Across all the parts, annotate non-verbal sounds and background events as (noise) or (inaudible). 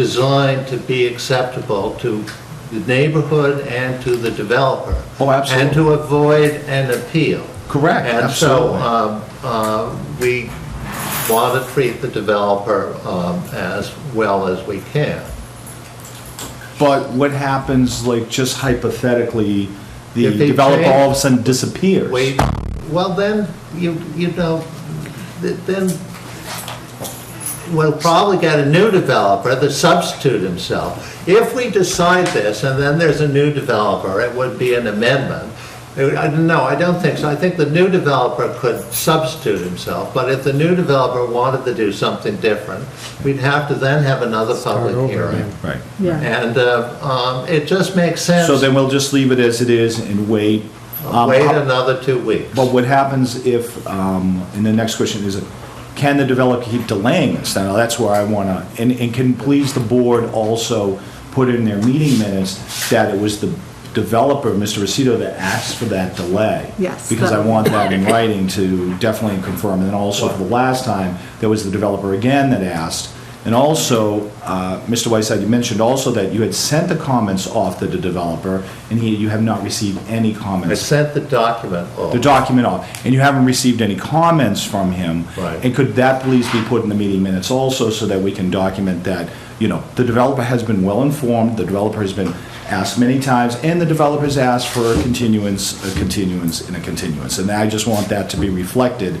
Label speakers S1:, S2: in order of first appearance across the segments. S1: designed to be acceptable to the neighborhood and to the developer.
S2: Oh, absolutely.
S1: And to avoid an appeal.
S2: Correct, absolutely.
S1: And so um, uh, we want to treat the developer um, as well as we can.
S2: But what happens, like, just hypothetically, the
S1: If they
S2: developer
S1: change-
S2: all of a sudden disappears?
S1: Wait, well, then, you, you know, th- then we'll probably get a new developer to substitute himself. If we decide this and then there's a new developer, it would be an amendment. It- I- No, I don't think so. I think the new developer could substitute himself, but if the new developer wanted to do something different, we'd have to then have another
S3: over
S1: public hearing.
S3: again.
S2: Right.
S4: Yeah.
S1: And uh, um, it just makes sense,
S2: So then we'll just leave it as it is and wait. Um,
S1: wait
S2: how-
S1: another two weeks.
S2: But what happens if, um, and the next question is, can the developer keep delaying this? Now, that's where I want to, and, and can please the board also put in their meeting minutes that it was the developer, Mr. Rosito, that asked for that delay?
S4: Yes,
S2: Because I
S4: that-
S2: want that in writing to definitely confirm. And then also for the last time, there was the developer again that asked. And also, uh, Mr. Whiteside, you mentioned also that you had sent the comments off to the developer and he, you have not received any comments
S1: I sent the document off.
S2: the document off, and you haven't received any comments from him.
S1: Right.
S2: And could that please be put in the meeting minutes also, so that we can document that, you know, the developer has been well-informed, the developer has been asked many times, and the developer's asked for a continuance, a continuance, and a continuance. And I just want that to be reflected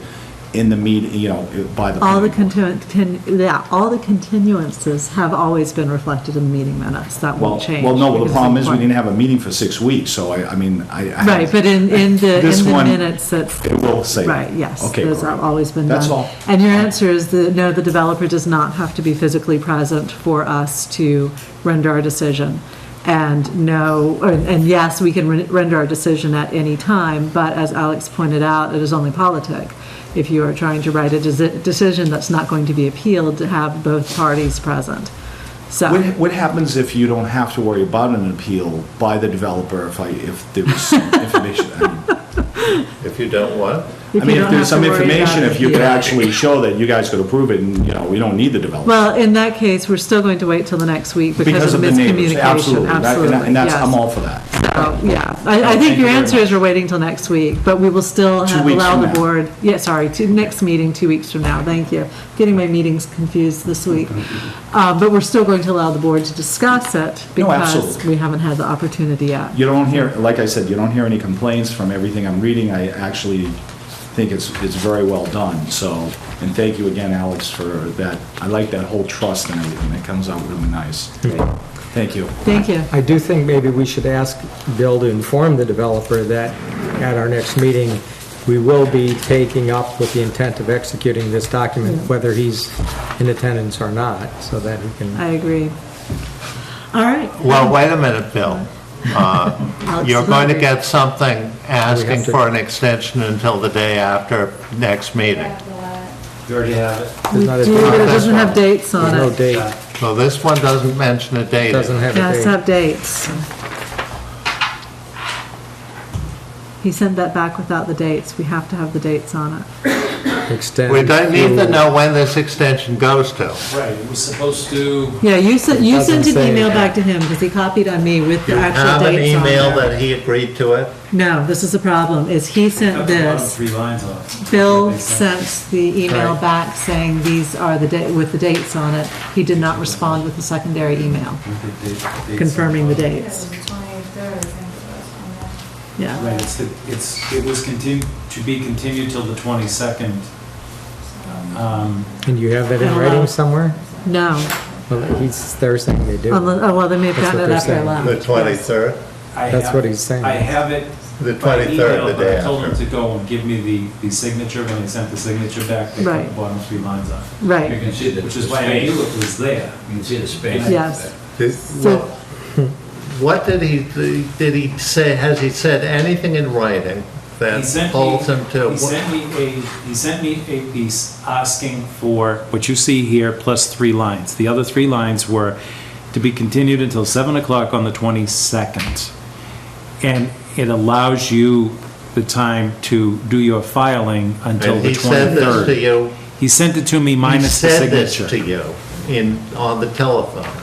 S2: in the meeting, you know, by the.
S4: All the
S2: planning board.
S4: continu, con- yeah, all the continuances have always been reflected in the meeting minutes. That
S2: Well,
S4: won't change.
S2: well, no, well, the
S4: because
S2: problem
S4: it's
S2: is, we
S4: important.
S2: didn't have a meeting for six weeks, so I, I mean, I. I-
S4: Right, but in, in the,
S2: This
S4: in the
S2: one-
S4: minutes, that's.
S2: It will say that.
S4: Right, yes.
S2: Okay,
S4: Those
S2: great.
S4: have always been done.
S2: That's all.
S4: And your answer is that, no, the developer does not have to be physically present for us to render our decision. And no, or- and yes, we can re- render our decision at any time, but as Alex pointed out, it is only politic. If you are trying to write a desi- decision that's not going to be appealed, to have both parties present.
S2: What,
S4: So,
S2: what happens if you don't have to worry about an appeal by the developer if I, if there was
S4: (laughs)
S2: some information? I mean-
S1: If you don't what?
S2: I mean,
S4: you
S2: if
S4: don't
S2: there's
S4: have
S2: some
S4: to worry
S2: information,
S4: about
S2: if you could
S4: appeal.
S2: actually show that you guys could approve it and, you know, we don't need the developer.
S4: Well, in that case, we're still going to wait till the next week because of
S2: the neighbors, Absolutely.
S4: miscommunication.
S2: That- and that- And that's,
S4: yes.
S2: I'm all for that.
S4: So, yeah, I, I
S2: Oh, Thank
S4: think
S2: you
S4: your
S2: very
S4: answer
S2: much.
S4: is we're waiting till next week, but we will still
S2: Two
S4: have-
S2: weeks
S4: allow
S2: from
S4: the
S2: now.
S4: board, yeah, sorry, to next meeting, two weeks from now, thank you. Getting my meetings confused this week. Uh, but we're still going to allow the board to discuss it
S2: No,
S4: because
S2: absolutely.
S4: we haven't had the opportunity yet.
S2: You don't hear, like I said, you don't hear any complaints from everything I'm reading. I actually think it's, it's very well done, so, and thank you again, Alex, for that. I like that whole trust and everything. It comes out really nice. Thank you.
S4: Thank you.
S3: I do think maybe we should ask Bill to inform the developer that at our next meeting, we will be taking up with the intent of executing this document, whether he's in attendance or not, so that he can,
S4: I agree. All right.
S1: Well, wait a minute, Bill.
S4: Alex
S1: You're
S4: is
S1: going to
S4: hungry.
S1: get something
S3: We
S1: asking
S3: have to-
S1: for an extension until the day after next meeting.
S5: You already have it.
S3: there's not a
S4: Do, but it
S3: date,
S4: doesn't have dates
S3: there's
S4: on
S3: no
S4: it.
S3: date,
S1: So this one doesn't mention a date.
S3: doesn't have
S4: It has to
S3: a
S4: have dates. He sent that back without the dates. We have to have the dates on it.
S3: date, extend.
S1: We don't need to know when this extension goes to.
S5: Right, it was supposed to,
S4: Yeah, you sent, you
S3: doesn't
S4: sent an
S3: say
S4: email
S3: that.
S4: back to him, because he copied on me with the
S1: You have
S4: actual
S1: an
S4: dates on
S1: email
S4: there.
S1: that he agreed to it?
S4: No, this is the problem, is he
S5: cut
S4: sent
S5: the bottom
S4: this,
S5: three lines off.
S4: Bill
S5: Makes sense.
S4: sent the email
S3: Right.
S4: back saying these are the date, with the dates on it. He did not respond with the secondary email
S5: With the date- dates on
S4: confirming the
S5: top.
S4: dates.
S6: Twenty-third, I think
S4: Yeah,
S5: Right, it's, the- it's, it was continued, to be continued till the 22nd. Um,
S3: And you have that in
S4: Hello.
S3: writing somewhere?
S4: no,
S3: Well, he's, they're saying they do.
S4: Unle- oh, well, they may have
S3: That's
S4: gotten
S3: what
S4: it
S3: they're
S4: after I
S3: saying.
S4: left.
S1: The 23rd?
S5: I
S3: That's
S5: have-
S3: what he's saying.
S5: I have it
S1: The
S5: by
S1: 23rd, the
S5: email,
S1: day
S5: but I told him
S1: after.
S5: to go and give me the, the signature, when I sent the signature back, they cut
S4: Right.
S5: the bottom three lines off.
S4: Right.
S7: You can see the
S5: Which is why I knew it was there.
S7: You can see the space.
S4: Yes.
S1: Did-
S4: So-
S1: well, What did he, did he say, has he said anything in writing
S5: He
S1: that
S5: sent me-
S1: holds him to?
S5: He sent me a, he sent me a piece asking for what you see here plus three lines. The other three lines were to be continued until 7 o'clock on the 22nd. And it allows you the time to do your filing until
S1: And
S5: the
S1: he said this to
S5: 23rd.
S1: you,
S5: He sent it to me
S1: he
S5: minus the
S1: said this
S5: signature.
S1: to you in, on the telephone.